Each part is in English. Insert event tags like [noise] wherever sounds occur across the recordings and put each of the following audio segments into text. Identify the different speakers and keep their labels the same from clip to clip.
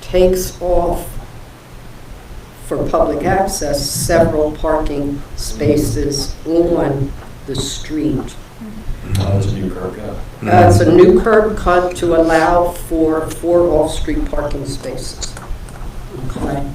Speaker 1: takes off for public access several parking spaces on the street.
Speaker 2: Oh, it's a new curb cut.
Speaker 3: Mm-hmm.
Speaker 1: Uh, It's a new curb cut to allow for four off-street parking spaces. Okay?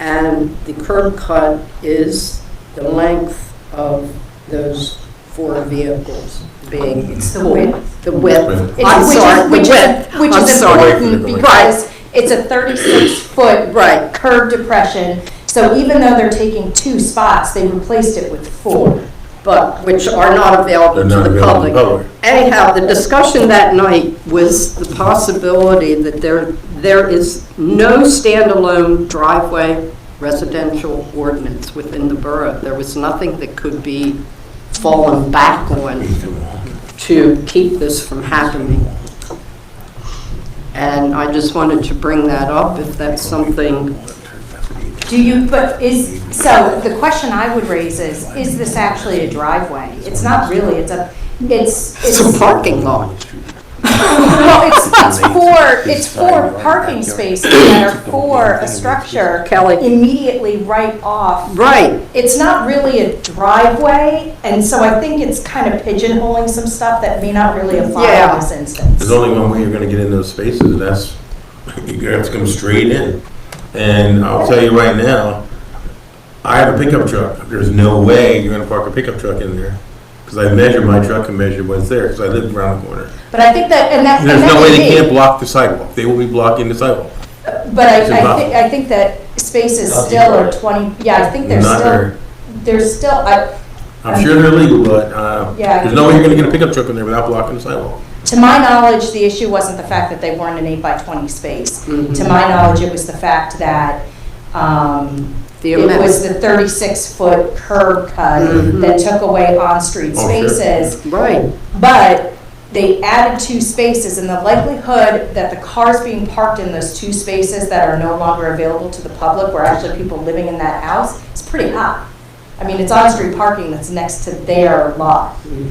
Speaker 1: And the curb cut is the length of those four vehicles being.
Speaker 4: It's the width.
Speaker 1: The width.
Speaker 4: It's-
Speaker 1: I'm
Speaker 4: which is-
Speaker 1: sorry, the
Speaker 4: which is-
Speaker 1: width.
Speaker 4: Which
Speaker 1: I'm
Speaker 4: is
Speaker 1: sorry.
Speaker 4: important
Speaker 1: Right.
Speaker 4: because it's a 36-foot
Speaker 1: Right.
Speaker 4: curb depression. So even though they're taking two spots, they replaced it with four.
Speaker 1: but which are not available
Speaker 3: They're
Speaker 1: to
Speaker 3: not
Speaker 1: the
Speaker 3: available to
Speaker 1: public.
Speaker 3: the public.
Speaker 1: Anyhow, the discussion that night was the possibility that there, there is no standalone driveway residential ordinance within the borough. There was nothing that could be fallen back on to keep this from happening. And I just wanted to bring that up, if that's something
Speaker 4: Do you, but is, so the question I would raise is, is this actually a driveway? It's not really, it's a, it's,
Speaker 1: it's
Speaker 4: it's,
Speaker 1: a parking lot.
Speaker 4: well, it's, it's for, it's for parking spaces that are for a structure
Speaker 1: Kelly.
Speaker 4: immediately right off.
Speaker 1: Right.
Speaker 4: It's not really a driveway, and so I think it's kind of pigeonholing some stuff that may not really apply
Speaker 1: Yeah.
Speaker 4: in this instance.
Speaker 3: There's only one way you're gonna get in those spaces, and that's, [laughs] you have to come straight in. And I'll tell you right now, I have a pickup truck, there's no way you're gonna park a pickup truck in there. Cause I measure my truck and measure what's there, cause I live around the corner.
Speaker 4: But I think that, and that, and
Speaker 3: There's
Speaker 4: that
Speaker 3: no way
Speaker 4: may
Speaker 3: they
Speaker 4: be.
Speaker 3: can't block the sidewalk, they will be blocking the sidewalk.
Speaker 4: But I,
Speaker 3: It's
Speaker 4: I
Speaker 3: about-
Speaker 4: think, I think that spaces
Speaker 2: Not
Speaker 4: still are
Speaker 2: even.
Speaker 4: twenty, yeah, I think there's
Speaker 3: Not
Speaker 4: still,
Speaker 3: there.
Speaker 4: there's still, I,
Speaker 3: I'm sure they're legal, but, uh,
Speaker 4: Yeah.
Speaker 3: there's no way you're gonna get a pickup truck in there without blocking the sidewalk.
Speaker 4: to my knowledge, the issue wasn't the fact that they weren't an eight by twenty space. To my knowledge, it was the fact that, um,
Speaker 1: The
Speaker 4: it
Speaker 1: amount. Mm-hmm.
Speaker 4: was the thirty-six foot curb cut that took away on-street
Speaker 3: Oh, sure.
Speaker 4: spaces.
Speaker 1: Right.
Speaker 4: But they added two spaces, and the likelihood that the cars being parked in those two spaces that are no longer available to the public, where actually people living in that house, is pretty high. I mean, it's on-street parking that's next to their lot.
Speaker 1: Mm-hmm.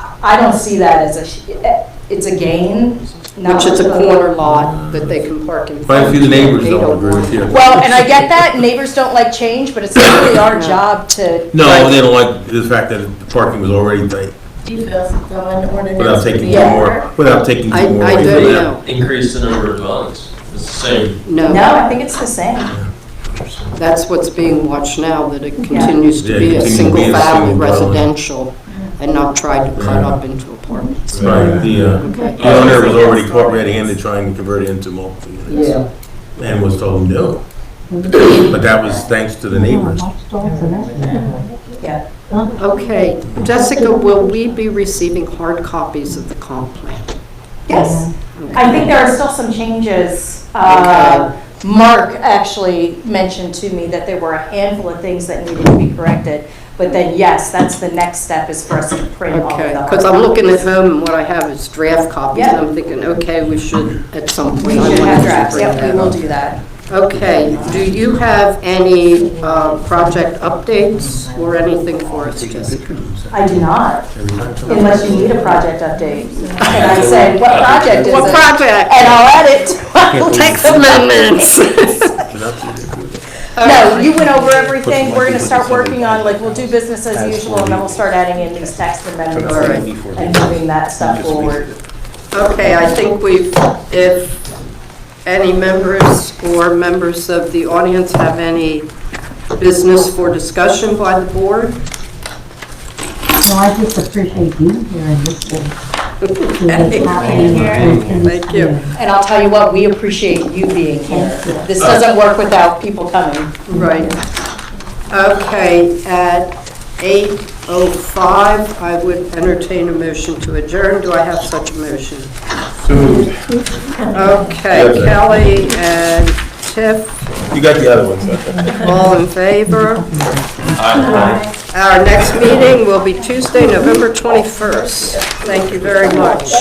Speaker 4: I I don't see that as a, sh- eh, it's a gain, not.
Speaker 1: Which is a corner lot that they can park in.
Speaker 3: Quite a few of the neighbors
Speaker 1: They
Speaker 3: don't agree with you.
Speaker 4: Well, and I get that, neighbors don't like change, but it's not really our job to.
Speaker 3: No, they don't like the fact that the parking was already tight,
Speaker 5: Do you feel some an ordinance?
Speaker 3: without taking
Speaker 5: to
Speaker 3: two
Speaker 5: be
Speaker 3: more,
Speaker 5: over?
Speaker 3: without taking
Speaker 1: I,
Speaker 3: two more.
Speaker 1: I
Speaker 3: away from
Speaker 1: don't
Speaker 3: that.
Speaker 1: know,
Speaker 2: Increase the number of dwellings. It's the same.
Speaker 1: no.
Speaker 4: No, I think it's the same.
Speaker 1: That's what's being watched now, that it continues
Speaker 3: Yeah,
Speaker 1: to be a
Speaker 3: continue to be a
Speaker 1: single-family
Speaker 3: single dwelling.
Speaker 1: residential and not tried to cut
Speaker 3: Yeah.
Speaker 1: up into apartments.
Speaker 3: Right, the, uh,
Speaker 1: Okay.
Speaker 3: The owner was already caught red-handed trying to convert it into multiple units.
Speaker 1: Yeah.
Speaker 3: And was told no. But that was thanks to the neighbors.
Speaker 4: Yeah.
Speaker 1: Okay, Jessica, will we be receiving hard copies of the comp plan?
Speaker 4: Yes. I think there are still some changes. Uh, Mark actually mentioned to me that there were a handful of things that needed to be corrected. But then, yes, that's the next step is for us to print all of
Speaker 1: Okay,
Speaker 4: the.
Speaker 1: because I'm looking at home and what I have is draft copies, and
Speaker 4: Yeah.
Speaker 1: I'm thinking, okay, we should at some
Speaker 4: We
Speaker 1: point. I
Speaker 4: should
Speaker 1: want
Speaker 4: have
Speaker 1: to
Speaker 4: drafts,
Speaker 1: bring
Speaker 4: yep,
Speaker 1: that
Speaker 4: we will
Speaker 1: up.
Speaker 4: do that.
Speaker 1: Okay, do you have any uh, project updates or anything for us, Jessica?
Speaker 4: I do not, unless you need a project update. And I say, what project is it?
Speaker 1: What project?
Speaker 4: And I'll add it to my
Speaker 1: Text
Speaker 4: list of
Speaker 1: amendments.
Speaker 4: [laughs] No, you went over everything, we're gonna start working on, like, we'll do business as usual, and then we'll start adding in these text amendments
Speaker 1: Alright.
Speaker 4: and and moving that stuff forward.
Speaker 1: Okay, I think we've, if any members or members of the audience have any business for discussion by the [laughs] board,
Speaker 6: No, I just appreciate you here and listening to
Speaker 1: Okay.
Speaker 6: what's happening. and-
Speaker 1: Thank you.
Speaker 4: And I'll tell you what, we appreciate you being here. This doesn't work without people coming.
Speaker 1: Right. Okay, at 8:05, I would entertain a motion to adjourn. Do I have such a motion? Okay,
Speaker 3: Yes, ma'am.
Speaker 1: Kelly and Tiff,
Speaker 3: You got the other ones,
Speaker 1: all in favor? Our next meeting will be Tuesday, November 21st. Thank you very much.